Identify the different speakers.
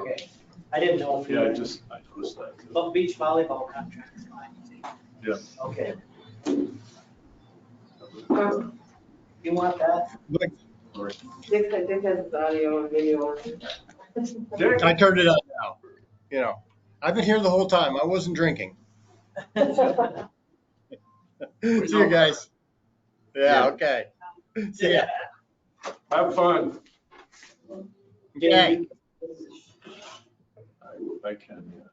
Speaker 1: Okay, I didn't know if you,
Speaker 2: Yeah, I just, I noticed that. too.
Speaker 1: but beach volleyball contract is fine, you think?
Speaker 2: Yeah.
Speaker 1: Okay, you want that?
Speaker 3: Dick, Dick has his audio and video on.
Speaker 2: Dick,
Speaker 4: I turned it on now, you know. I've been here the whole time. I wasn't drinking. See you guys. Yeah, okay. See ya.
Speaker 2: have fun.
Speaker 1: Yeah,
Speaker 4: Okay.
Speaker 1: you-
Speaker 2: I- I can, yeah.